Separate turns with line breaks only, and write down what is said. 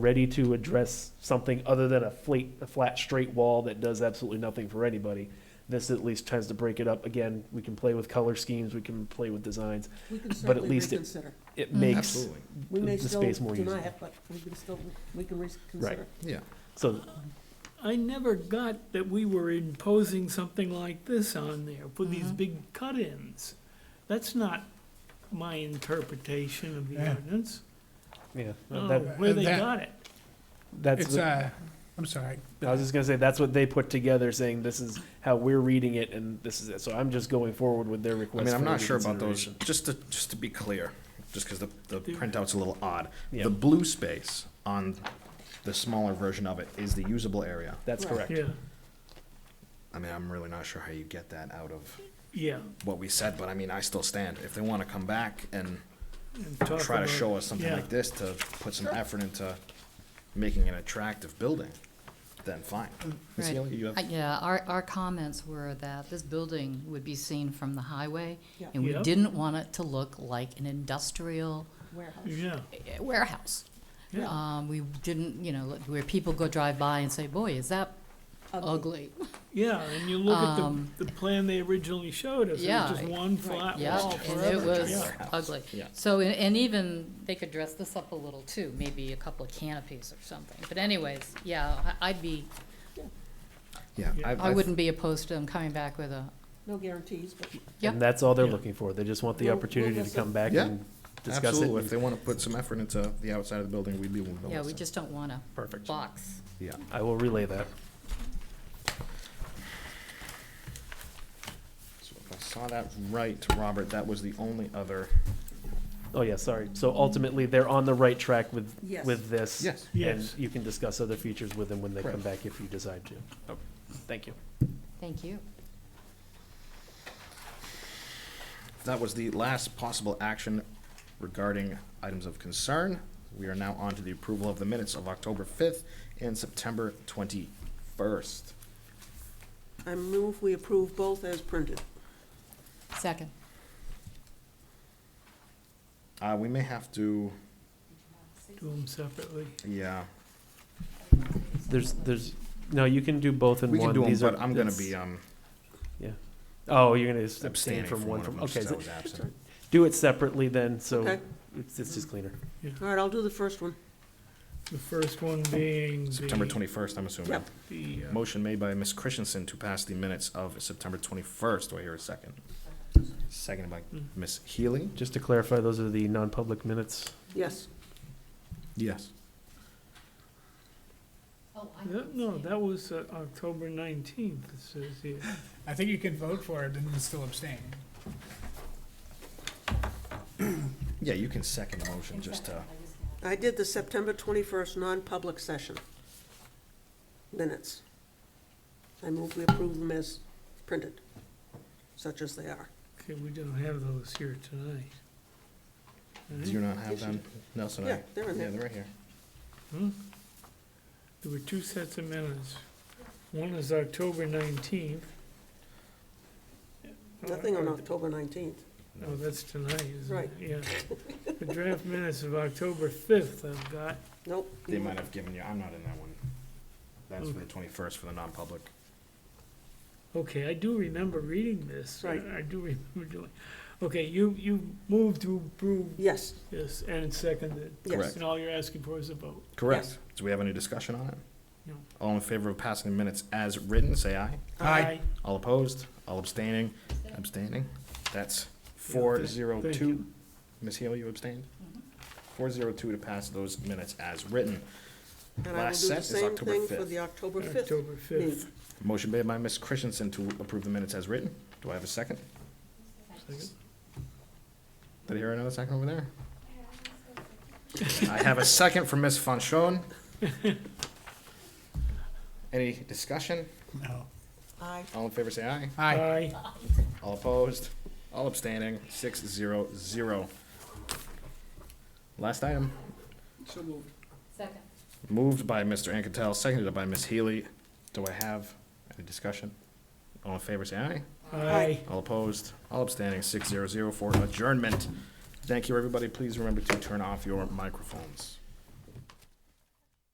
ready to address something other than a flat, a flat, straight wall that does absolutely nothing for anybody. This at least tries to break it up. Again, we can play with color schemes, we can play with designs.
We can
But at
certainly
least it-
reconsider.
It makes
Absolutely,
We may
the
still
space more
deny
usable.
it, but we can still, we can reconsider.
yeah.
so.
I never got that we were imposing something like this on there, with
Mm-hmm.
these big cut-ins. That's not my interpretation of the
Yeah.
ordinance.
Yeah,
I
Oh.
don't know
that,
where they
That-
got it.
that's.
It's,
the-
uh, I'm sorry.
I was just gonna say that's what they put together, saying this is how we're reading it, and this is it. So I'm just going forward with their
I
request.
mean,
for
I'm not sure about those,
reconsideration.
just to, just to be clear, just because the, the
Yeah.
printout's a little odd.
Yeah.
The blue space on the smaller version of it is the usable area.
That's
Right.
correct.
Yeah,
I mean, I'm really not sure how you get that out of
yeah.
what we said, but I mean, I still stand. If they want to come back and
and talk
try to
about-
show us something
yeah.
like this to put some effort into making an attractive building, then fine.
Mm.
Ms.
Right.
Healy, you have-
Uh, Yeah, our, our comments were that this building would be seen from the highway,
Yeah.
and we
Yep.
didn't want it to look like an industrial
Warehouse.
Yeah,
eh, warehouse.
yeah.
Um, we didn't, you know, look- where people go drive by and say, boy, is that ugly?
Yeah, and you look at
Um,
the, the plan they originally showed us, it
yeah,
was just one flat
Yeah,
wall
and it
forever.
was
Yeah.
ugly.
Yeah.
So, a- and even, they could dress this up a little too, maybe a couple of canopies or something. But anyways, yeah, I- I'd be,
Yeah.
Yeah.
I've-
I
I've-
wouldn't be opposed to them coming back with a,
No guarantees, but
Yep.
And that's all they're
Yeah.
looking for. They just want the
We'll-
opportunity
we'll
to
just-
come back
Yeah,
and discuss
Absolutely.
it.
If they want to put some effort into the outside of the building, we'd be willing to.
yeah, we
listen.
just don't want a
Perfect.
box.
Yeah.
I will relay that.
So if I saw that right, Robert, that was the only other.
Oh yeah, sorry. So ultimately, they're on the right track with
Yes.
with this.
Yes.
Yes.
And you can discuss other features with them when they come
Correct.
back if you decide to. Okay. Thank you.
Thank you.
That was the last possible action regarding items of concern. We are now on to the approval of the minutes of October fifth and September twenty-first.
I move we approve both as printed.
Second.
Uh, we may have to,
Do them separately.
yeah,
There's there's no. You can do both in
we
one.
can do them,
These are-
but I'm gonna
it's-
be, um,
Yeah. Oh, you're gonna just abstain
abstaining
from one from, okay.
since I
so
was absent.
Do it separately then, so
Okay.
it's, it's just cleaner.
All right, I'll do the first one.
The first one being the.
September twenty-first, I'm assuming.
Yep.
The, uh,
Motion made by Ms. Christensen to pass the minutes of September twenty-first. Do I hear a second? Seconded by Ms. Healy.
Just to clarify, those are the non-public minutes.
Yes.
Yes.
that- uh, No, that was uh, October nineteenth, it says here.
I think you can vote for it and still abstain.
Yeah, you can second the motion just to,
I did the September 21st non-public session minutes. I move we approve them as printed, such as they are.
Okay, we don't have those here tonight. Right?
do you not have them? Nelson, I.
Yeah, they're in
Yeah,
there.
they're right here.
Hmm? There were two sets of minutes. One is October nineteenth.
Nothing on October 19th.
Oh, that's tonight, isn't
Right.
it? Yeah. The draft minutes of October fifth I've got.
Nope.
They might have given you, I'm not in that one. That's for the twenty-first for the non-public.
Okay, I do remember reading this. I-
Right.
I do remember doing, okay, you, you moved to approve
Yes,
this and seconded.
Yes.
Correct.
And all you're asking for is a vote.
Correct.
Do we have any discussion on it?
No.
All in favor of passing the minutes as written, say aye.
Aye.
All opposed, all abstaining, abstaining. That's four
Yeah, th-
zero
thank
two.
you.
Ms. Hill, you abstained?
Mm-hmm.
Four zero two to pass those minutes as written.
and I will
Last
do
set
the
is
same
October
thing for
5th.
the October 5th.
October fifth.
Motion made by Ms. Christensen to approve the minutes as written. Do I have a second? Did I hear another second over there? I have a second from Ms. Fanchon. Any discussion?
No.
Aye.
All in favor, say aye.
Aye.
Aye.
All opposed, all abstaining, six zero zero. Last item,
So moved.
Second.
moved by Mr. Anketell, seconded by Ms. Healy. Do I have any discussion? All in favor, say aye.
Aye.
All opposed, all abstaining, six zero zero for adjournment. Thank you, everybody. Please remember to turn off your microphones.